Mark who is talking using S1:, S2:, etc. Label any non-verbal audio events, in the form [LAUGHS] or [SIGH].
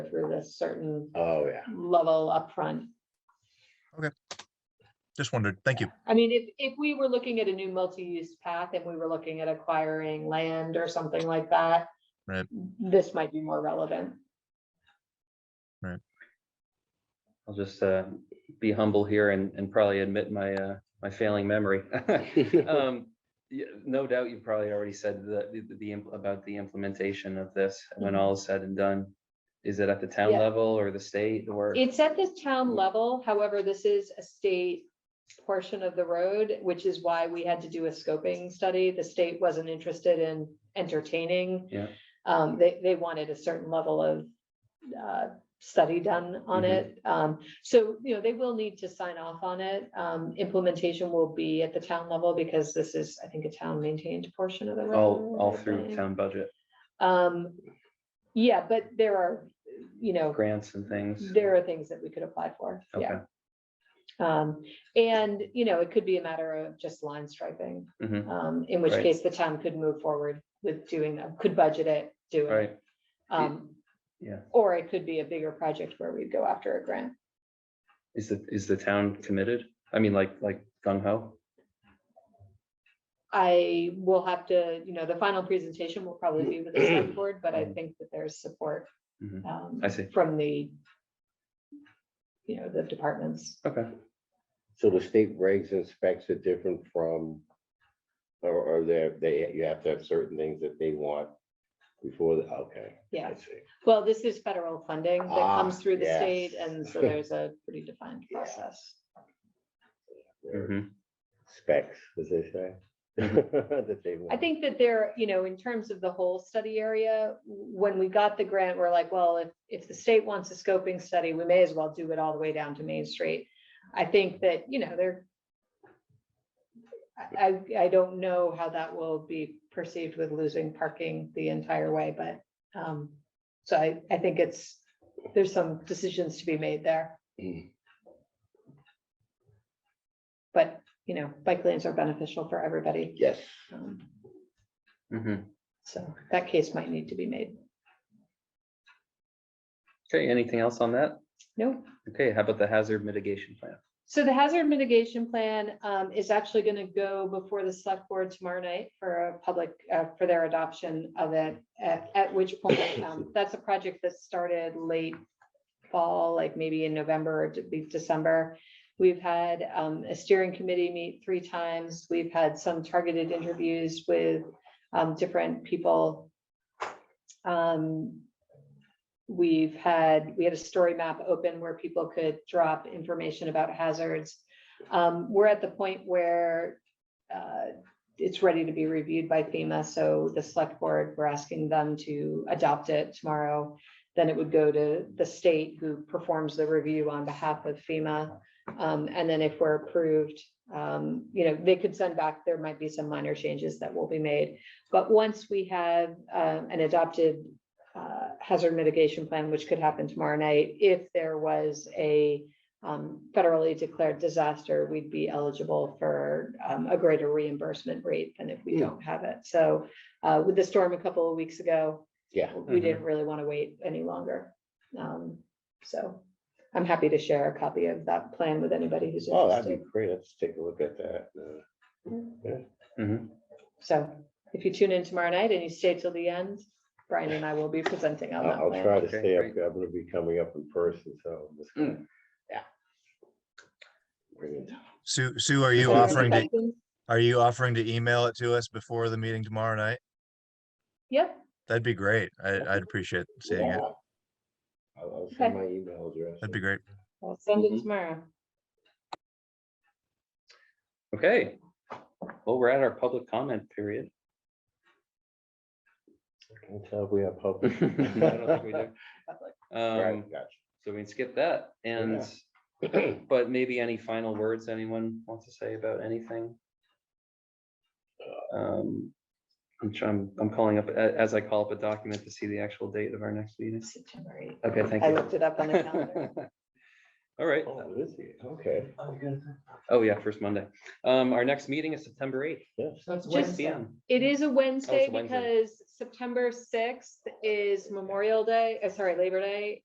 S1: a certain
S2: Oh, yeah.
S1: level upfront.
S3: Just wondered. Thank you.
S1: I mean, if, if we were looking at a new multi-use path and we were looking at acquiring land or something like that.
S3: Right.
S1: This might be more relevant.
S4: I'll just uh, be humble here and, and probably admit my, uh, my failing memory. [LAUGHS] Um, yeah, No doubt you've probably already said the, the- the, imp- about the implementation of this, when
S1: Mhm.
S4: all is said and done. Is it at the town
S1: Yeah.
S4: level or the state or?
S1: It's at the
S4: Mm.
S1: town level, however, this is a state portion of the road, which is why we had to do a scoping study. The state wasn't interested in entertaining.
S4: Yeah.
S1: Um, they, they wanted a certain level of, uh, study done on
S4: Mhm.
S1: it. Um, so, you know, they will need to sign off on it. Um, implementation will be at the town level because this is, I think, a town maintained portion of the road.
S4: All, all
S1: I
S4: through
S1: think.
S4: town budget,
S1: Um, yeah, but there are, you know,
S4: grants and things.
S1: Oh, there are things that we could apply for,
S4: Okay.
S1: yeah. Um, and, you know, it could be a matter of just line striping,
S4: Mhm.
S1: um, in which
S4: Right.
S1: case the town could move forward with doing that, could budget it, do
S4: All right,
S1: it. Um,
S4: yeah.
S1: or it could be a bigger project where we go after a grant.
S4: Is the, is the town committed? I mean, like, like gung ho?
S1: I will have to, you know, the final presentation will probably be with the
S4: [CLEARS THROAT]
S1: select board, but I think that there's support.
S4: Mhm.
S1: um,
S4: I see.
S1: From the, you know, the departments.
S4: Okay,
S2: So the state regs and specs are different from, or, or they're, they, you have to have certain things that they want before, the okay.
S1: Yeah.
S2: I see.
S1: Well, this is federal funding that
S2: Ah,
S1: comes through the
S2: yes.
S1: state, and
S4: [LAUGHS]
S1: so there's a pretty defined
S2: Yeah.
S1: process.
S2: They're
S4: Mhm.
S2: Specs, as they say.
S4: Mm-hmm.
S2: [LAUGHS] That they
S1: I
S2: want.
S1: think that there, you know, in terms of the whole study area, when we got the grant, we're like, well, if, if the state wants a scoping study, we may as well do it all the way down to Main Street. I think that, you know, there. I, I I don't know how that will be perceived with losing parking the entire way, but, um, so I, I think it's, there's some decisions to be made there.
S2: Mm.
S1: But, you know, bike lanes are beneficial for everybody.
S2: Yes.
S1: um,
S4: Mhm.
S1: So that case might need to be made.
S4: okay, anything else on that?
S1: No.
S4: Okay, how about the hazard mitigation plan?
S1: So the hazard mitigation plan um, is actually going to go before the select board tomorrow night for a public, uh, for their adoption of it. At, at which point, um, that's a project that started late fall, like maybe in November or de- be- December. We've had um, a steering committee meet three times. We've had some targeted interviews with um, different people. Um, We've had, we had a story map open where people could drop information about hazards. Um, We're at the point where uh, it's ready to be reviewed by FEMA, so the select board, we're asking them to adopt it tomorrow. Then it would go to the state who performs the review on behalf of FEMA. Um, And then if we're approved, um, you know, they could send back, there might be some minor changes that will be made. But once we have uh, an adopted uh, hazard mitigation plan, which could happen tomorrow night, if there was a um, federally declared disaster, we'd be eligible for um, a greater reimbursement rate than if we don't have it. So uh, with the storm a couple of weeks ago,
S2: Yeah.
S1: we
S4: Mhm.
S1: didn't really want to wait any longer. Um, So I'm happy to share a copy of that plan with anybody who's
S2: Oh, that'd be
S1: interested.
S2: great. Let's take a look at that. uh,
S4: Mhm.
S1: So if you tune in tomorrow night and you stay till the end, Brian and I will be presenting on that
S2: I'll, I'll
S1: plan.
S2: try to
S4: Okay,
S2: stay up.
S4: great.
S2: I'm gonna be coming up in person, so. I'm just
S4: Mm.
S2: gonna- Yeah. Bring it.
S3: Sue, Sue, are you
S1: Any
S3: offering to,
S1: questions?
S3: are you offering to email it to us before the meeting tomorrow night?
S1: Yep,
S3: That'd be great. I, I'd appreciate seeing it.
S2: I'll, I'll send
S1: Okay.
S2: my email address.
S3: That'd be great.
S1: I'll send it
S4: Mhm.
S1: tomorrow.
S4: Okay, well, we're at our public comment period.
S2: Can't tell if we have
S4: [LAUGHS] I
S2: public.
S4: don't think we do. Um,
S2: Right,
S4: so we can skip that and,
S2: gotcha.
S4: [CLEARS THROAT] but maybe any final words anyone wants to say about anything? Um, I'm trying, I'm calling up, a- as I call up a document to see the actual date of our next meeting.
S1: September eighth.
S4: Okay, thank
S1: I looked it up on the [LAUGHS] calendar.
S4: you. [LAUGHS] All right,
S2: Oh, it is here. Okay.
S4: oh yeah, first Monday. Um, our next meeting is September eighth,
S2: Yes.
S1: It's
S4: six
S1: just-
S4: P M.
S1: It is a Wednesday
S4: Wednesday.
S1: because September sixth is Memorial Day, uh, sorry, Labor Day,